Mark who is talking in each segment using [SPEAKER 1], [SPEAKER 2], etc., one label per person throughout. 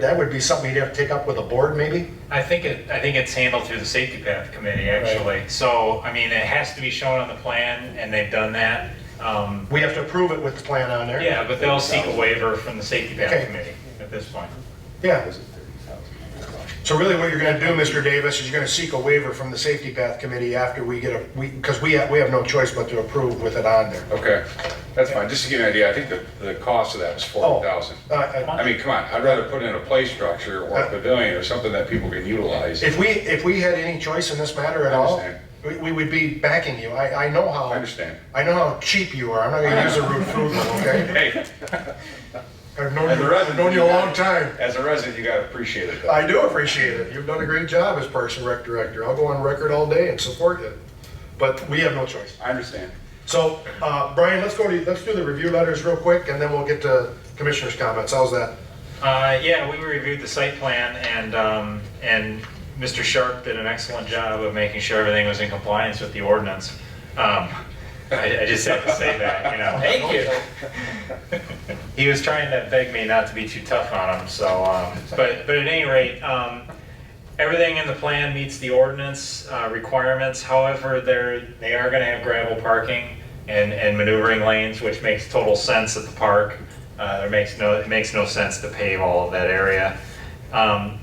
[SPEAKER 1] That would be something you'd have to take up with the board, maybe?
[SPEAKER 2] I think it, I think it's handled through the safety path committee, actually. So, I mean, it has to be shown on the plan, and they've done that. Um,
[SPEAKER 1] We have to approve it with the plan on there?
[SPEAKER 2] Yeah, but they'll seek a waiver from the safety
[SPEAKER 1] Okay.
[SPEAKER 2] path committee at this point.
[SPEAKER 1] Yeah. So really what you're gonna do, Mr. Davis, is you're gonna seek a waiver from the Safety Path Committee after we get a, we, because we have, we have no choice but to approve with it on there.
[SPEAKER 3] Okay, that's fine. Just to give you an idea, I think the, the cost of that was
[SPEAKER 1] Oh,
[SPEAKER 3] forty thousand.
[SPEAKER 1] uh, uh,
[SPEAKER 3] I mean, come on, I'd rather put in a play structure or a pavilion or something that people can utilize.
[SPEAKER 1] If we, if we had any choice in this matter at
[SPEAKER 3] I
[SPEAKER 1] all,
[SPEAKER 3] understand.
[SPEAKER 1] we, we would be backing you. I, I know how.
[SPEAKER 3] I understand.
[SPEAKER 1] I know how cheap you are. I'm not gonna use the rude food, okay?
[SPEAKER 3] Hey,
[SPEAKER 1] I've known
[SPEAKER 3] And
[SPEAKER 1] you,
[SPEAKER 3] the rest
[SPEAKER 1] I've known you a long time.
[SPEAKER 3] as a resident, you gotta appreciate it. though.
[SPEAKER 1] I do appreciate it. You've done a great job as Parks and Rec Director. I'll go on record all day and support you. But we have no choice.
[SPEAKER 3] I understand.
[SPEAKER 1] So, uh, Brian, let's go to, let's do the review letters real quick and then we'll get to commissioners' comments. How's that?
[SPEAKER 2] Uh, Yeah, we reviewed the site plan, and, um, and Mr. Sharp did an excellent job of making sure everything was in compliance with the ordinance. Um, I I just have to say that, you know. Thank you. He was trying to beg me not to be too tough on him, so, um, but, but at any rate, um, Everything in the plan meets the ordinance uh, requirements, however, they're, they are gonna have gravel parking and, and maneuvering lanes, which makes total sense at the park. Uh, There makes no, it makes no sense to pave all of that area. Um,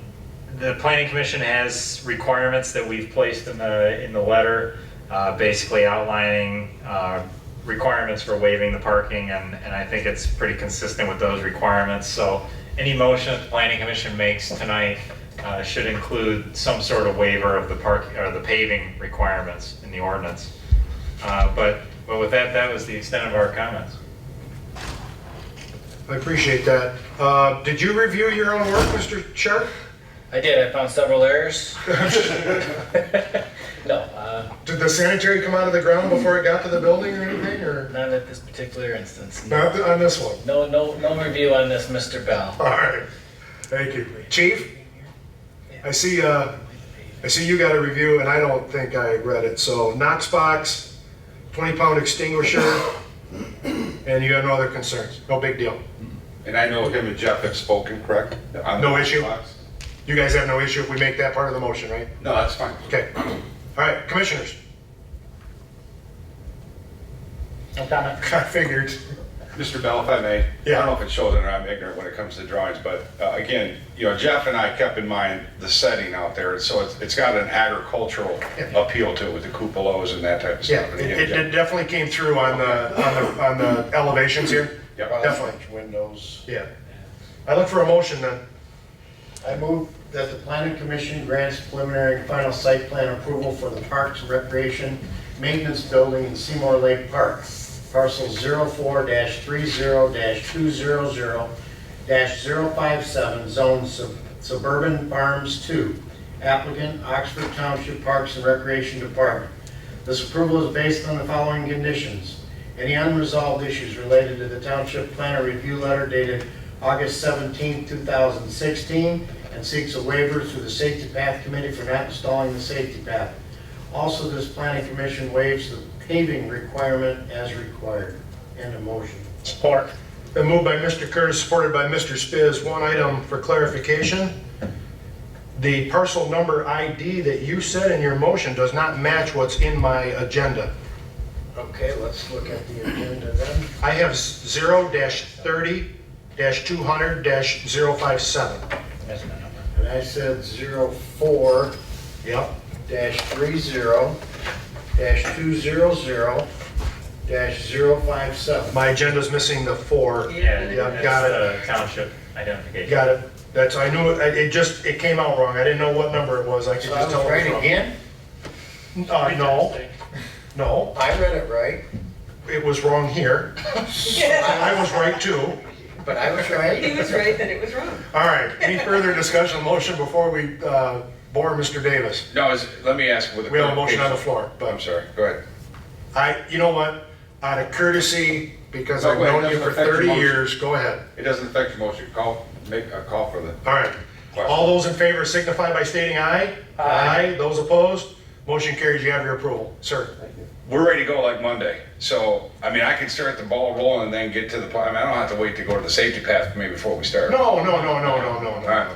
[SPEAKER 2] The planning commission has requirements that we've placed in the, in the letter, uh, basically outlining uh, requirements for waiving the parking, and, and I think it's pretty consistent with those requirements. So any motion that the planning commission makes tonight uh, should include some sort of waiver of the park, or the paving requirements in the ordinance. Uh, But, but with that, that was the extent of our comments.
[SPEAKER 1] I appreciate that. Uh, did you review your own work, Mr. Sharp?
[SPEAKER 4] I did. I found several errors. no, uh,
[SPEAKER 1] Did the sanitary come out of the ground before it got to the building or anything, or
[SPEAKER 4] not at this particular instance. No,
[SPEAKER 1] not on this one?
[SPEAKER 4] no, no, review on this, Mr. Bell.
[SPEAKER 1] All right. Thank you. Chief? I see, uh, I see you got a review and I don't think I read it. So Knox box, twenty pound extinguisher, and you have no other concerns. No big deal.
[SPEAKER 3] And I know him and Jeff have spoken, correct? On the
[SPEAKER 1] No issue.
[SPEAKER 3] box?
[SPEAKER 1] You guys have no issue if we make that part of the motion, right?
[SPEAKER 3] No, that's fine.
[SPEAKER 1] Okay. All right, commissioners.
[SPEAKER 2] No comment.
[SPEAKER 1] I figured.
[SPEAKER 3] Mr. Bell, if I may, I
[SPEAKER 1] Yeah.
[SPEAKER 3] don't know if it shows that I'm ignorant when it comes to drawings, but uh, again, you know, Jeff and I kept in mind the setting out there, so it's, it's got an agricultural
[SPEAKER 1] Yeah.
[SPEAKER 3] appeal to it with the cupolas and that type of
[SPEAKER 1] Yeah,
[SPEAKER 3] stuff. And
[SPEAKER 1] it,
[SPEAKER 3] again,
[SPEAKER 1] it- it definitely came through on the, on the, on the elevations here.
[SPEAKER 3] Jeff- yeah.
[SPEAKER 1] Definitely,
[SPEAKER 5] windows.
[SPEAKER 1] yeah. I look for a motion then.
[SPEAKER 5] I move that the planning commission grants preliminary and final site plan approval for the Parks and Recreation Maintenance Building in Seymour Lake Park, parcel 04-30-200-057, zone sub- suburban farms 2, applicant Oxford Township Parks and Recreation Department. This approval is based on the following conditions. Any unresolved issues related to the township planner review letter dated August 17, 2016, and seeks a waiver through the Safety Path Committee for not installing the safety path. Also, this planning commission waives the paving requirement as required. End of motion.
[SPEAKER 1] Support. Been moved by Mr. Curtis, supported by Mr. Spiz. One item for clarification. The parcel number ID that you said in your motion does not match what's in my agenda.
[SPEAKER 5] Okay, let's look at the agenda then.
[SPEAKER 1] I have zero thirty two hundred 57
[SPEAKER 4] That's my number.
[SPEAKER 5] And I said 04
[SPEAKER 1] Yep,
[SPEAKER 5] dash three zero dash two zero zero dash zero five seven.
[SPEAKER 1] my agenda's missing the four.
[SPEAKER 2] Yeah,
[SPEAKER 1] Yeah, got it.
[SPEAKER 2] that's the township identification.
[SPEAKER 1] Got it. That's, I knew, it I- it just, it came out wrong. I didn't know what number it was. I could
[SPEAKER 5] So I
[SPEAKER 1] just
[SPEAKER 5] was
[SPEAKER 1] tell. it was
[SPEAKER 5] right
[SPEAKER 1] wrong.
[SPEAKER 5] again?
[SPEAKER 1] Uh, no, no,
[SPEAKER 5] I read it right,
[SPEAKER 1] it was wrong here. I was right too.
[SPEAKER 5] but I was
[SPEAKER 6] He
[SPEAKER 5] right.
[SPEAKER 6] was right that it was wrong.
[SPEAKER 1] All right, any further discussion, on motion before we uh, bore Mr. Davis?
[SPEAKER 3] No, is, let me ask with a.
[SPEAKER 1] We have a motion on the floor,
[SPEAKER 3] Oh, I'm
[SPEAKER 1] but
[SPEAKER 3] sorry, go ahead.
[SPEAKER 1] I, you know what? Out of courtesy, because
[SPEAKER 3] No,
[SPEAKER 1] I've
[SPEAKER 3] wait,
[SPEAKER 1] known you
[SPEAKER 3] doesn't
[SPEAKER 1] for
[SPEAKER 3] affect your
[SPEAKER 1] 30
[SPEAKER 3] motion.
[SPEAKER 1] years, go ahead.
[SPEAKER 3] It doesn't affect your motion, call, make a call for the,
[SPEAKER 1] All right, all those in favor signify by stating aye. Aye. Those opposed, motion carries, you have your approval. Sir,
[SPEAKER 3] we're ready to go like Monday. So, I mean, I can start the ball rolling and then get to the, pl- I mean, I don't have to wait to go to the safety path maybe before we start.
[SPEAKER 1] No, no, no, no, no, no, no,
[SPEAKER 3] All right.
[SPEAKER 1] no.